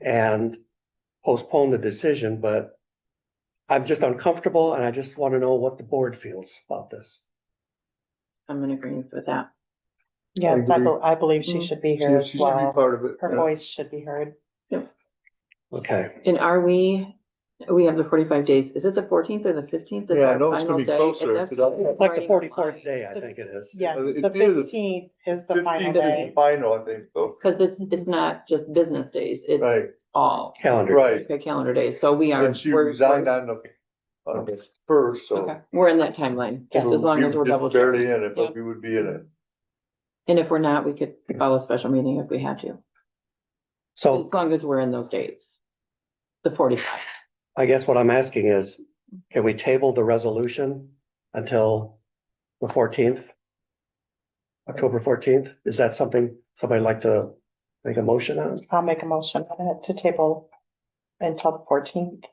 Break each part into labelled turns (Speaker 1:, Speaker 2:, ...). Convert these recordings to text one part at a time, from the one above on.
Speaker 1: and postpone the decision, but I'm just uncomfortable and I just want to know what the board feels about this.
Speaker 2: I'm in agreement with that.
Speaker 3: Yes, I,
Speaker 4: agree.
Speaker 3: be- I believe she
Speaker 2: Mm.
Speaker 3: should be
Speaker 4: She
Speaker 3: here
Speaker 4: she
Speaker 3: as
Speaker 4: should be
Speaker 3: well.
Speaker 4: part of it.
Speaker 3: Her voice should be heard.
Speaker 1: Okay,
Speaker 2: And are we, we have the forty-five days. Is it the fourteenth or the fifteenth?
Speaker 4: Yeah, I know it's gonna be closer, 'cause I-
Speaker 1: it's like the forty-fourth day, I think it is.
Speaker 3: Yeah,
Speaker 4: Uh, it
Speaker 3: the
Speaker 4: is.
Speaker 3: fifteenth is the final
Speaker 4: Fifteenth is the
Speaker 3: day.
Speaker 4: final, I think, so.
Speaker 2: Cause it's, it's not just business days, it's
Speaker 4: Right,
Speaker 2: all
Speaker 1: Calendar.
Speaker 4: right.
Speaker 2: okay, calendar days. So we are.
Speaker 4: And she
Speaker 2: we're-
Speaker 4: resigned
Speaker 2: we're-
Speaker 4: on the, on the first, so.
Speaker 2: Okay, we're in that timeline, just as
Speaker 4: we
Speaker 2: long as
Speaker 4: were
Speaker 2: we're
Speaker 4: just
Speaker 2: double
Speaker 4: Barely
Speaker 2: checking.
Speaker 4: in it,
Speaker 2: Yeah.
Speaker 4: but we would be in it.
Speaker 2: And if we're not, we could call a special meeting if we had to,
Speaker 4: Oh.
Speaker 2: as
Speaker 1: So
Speaker 2: long as we're in those dates. The forty-five.
Speaker 1: I guess what I'm asking is, can we table the resolution until the fourteenth? October fourteenth? Is that something somebody like to make a motion on?
Speaker 3: I'll make a motion on it to table until the fourteenth.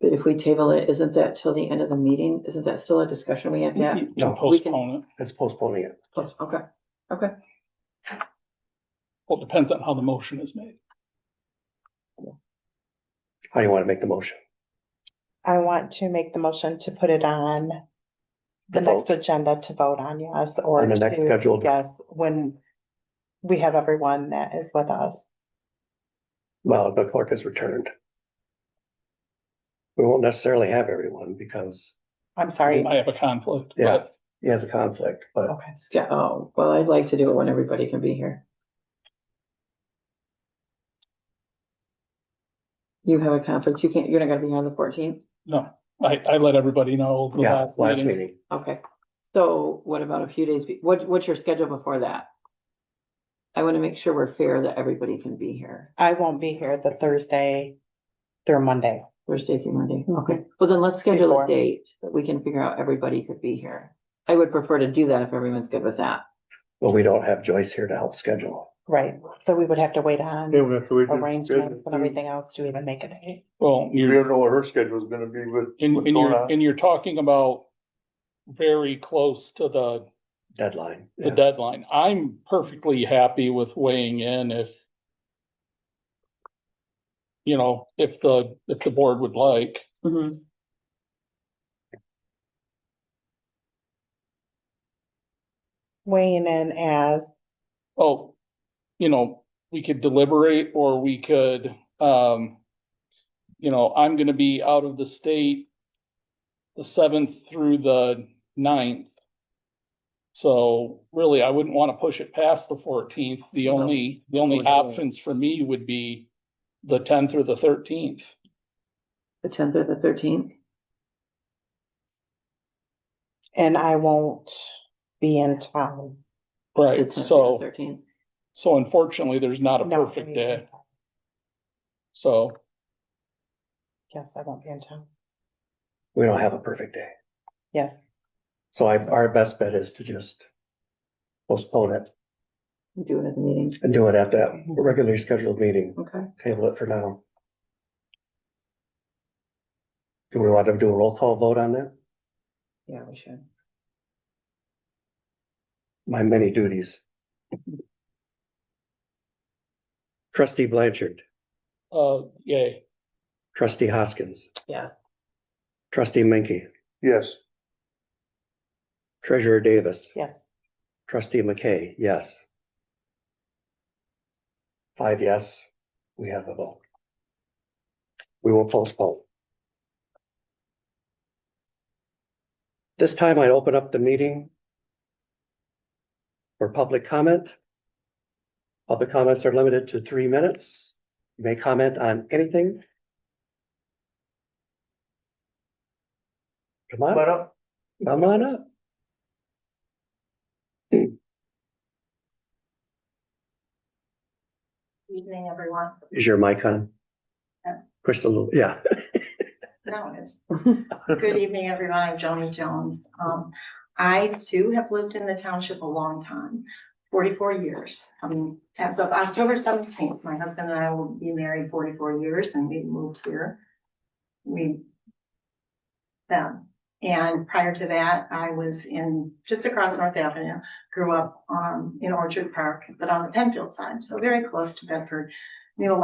Speaker 2: But if we table it, isn't that till the end of the meeting? Isn't that still a discussion we have to have?
Speaker 5: You can
Speaker 1: No,
Speaker 2: we can-
Speaker 5: postpone it.
Speaker 1: It's postponing it.
Speaker 2: Plus, okay, okay.
Speaker 5: Well, it depends on how the motion is made.
Speaker 1: How do you want to make the motion?
Speaker 3: I want to make the motion to put it on the
Speaker 1: To vote.
Speaker 3: next agenda to vote on, yes, or
Speaker 1: On the next
Speaker 3: to-
Speaker 1: scheduled-
Speaker 3: Yes, when we have everyone that is with us.
Speaker 1: Well, the clerk has returned. We won't necessarily have everyone because
Speaker 3: I'm
Speaker 5: I
Speaker 3: sorry.
Speaker 5: have a conflict,
Speaker 1: Yeah.
Speaker 5: but
Speaker 1: he has a conflict, but
Speaker 3: Okay.
Speaker 2: Sca- Oh, well, I'd like to do it when everybody can be here. You have a conflict, you can't, you're not gonna be here on the fourteenth?
Speaker 5: no, I, I let everybody know. the
Speaker 1: yeah,
Speaker 5: last
Speaker 1: last
Speaker 5: meeting.
Speaker 1: meeting.
Speaker 2: Okay, so what about a few days, be- what, what's your schedule before that? I wanna make sure we're fair that everybody can be here,
Speaker 3: I won't be here the Thursday through Monday.
Speaker 2: Thursday through Monday, okay, well then let's schedule
Speaker 3: Before.
Speaker 2: a date that we can figure out everybody could be here. I would prefer to do that if everyone's good with that,
Speaker 1: Well, we don't have Joyce here to help schedule.
Speaker 3: Right, so we would have to wait on
Speaker 4: Yeah, we have to wait. till-
Speaker 3: arrangements and everything else to even make a date.
Speaker 5: Well,
Speaker 4: You
Speaker 5: you're,
Speaker 4: don't know what her schedule's gonna be with.
Speaker 5: and,
Speaker 4: what's
Speaker 5: and
Speaker 4: going
Speaker 5: you're,
Speaker 4: on.
Speaker 5: and you're talking about very close to the,
Speaker 1: Deadline.
Speaker 5: the
Speaker 1: Yeah.
Speaker 5: deadline. I'm perfectly happy with weighing in if you know, if the, if the board would like,
Speaker 3: Weighing in as,
Speaker 5: oh, you know, we could deliberate or we could, um, you know, I'm gonna be out of the state the seventh through the ninth. So really, I wouldn't want to push it past the fourteenth. The
Speaker 2: No.
Speaker 5: only, the only
Speaker 1: No, no.
Speaker 5: options for me would be the tenth or the thirteenth.
Speaker 2: the tenth or the thirteenth,
Speaker 3: and I won't be in town.
Speaker 2: the
Speaker 5: Right,
Speaker 2: tenth or
Speaker 5: so,
Speaker 2: thirteenth.
Speaker 5: so unfortunately, there's not a
Speaker 3: No,
Speaker 5: perfect
Speaker 3: I-
Speaker 5: day, so.
Speaker 3: Yes, I won't be in town.
Speaker 1: We don't have a perfect day.
Speaker 3: Yes,
Speaker 1: So I, our best bet is to just postpone it
Speaker 2: Do it at the meeting,
Speaker 1: and do it at that regularly scheduled meeting,
Speaker 2: okay,
Speaker 1: table it for now. Do we want to do a roll call vote on that?
Speaker 2: yeah, we should.
Speaker 1: My many duties. Trustee Blanchard,
Speaker 5: Uh, yay,
Speaker 1: trustee Hoskins.
Speaker 2: Yeah.
Speaker 1: Trustee Menke,
Speaker 4: Yes,
Speaker 1: treasurer Davis,
Speaker 3: yes.
Speaker 1: trustee McKay, yes. Five yes, we have the vote. We will postpone. This time I open up the meeting for public comment. Public comments are limited to three minutes. You may comment on anything. Come on.
Speaker 4: but uh, up.
Speaker 1: Come on up.
Speaker 6: Evening, everyone.
Speaker 1: Is your mic on?
Speaker 6: Yeah.
Speaker 1: Push the little, yeah.
Speaker 6: No, it's, good evening, everyone. I'm Joni Jones. Um, I too have lived in the township a long time, forty-four years. Um, as of October seventeenth, my husband and I will be married forty-four years and we moved here. We them. And prior to that, I was in, just across North Avenue, grew up, um, in Orchard Park, but on the Penfield side, so very close to Bedford. Knew a lot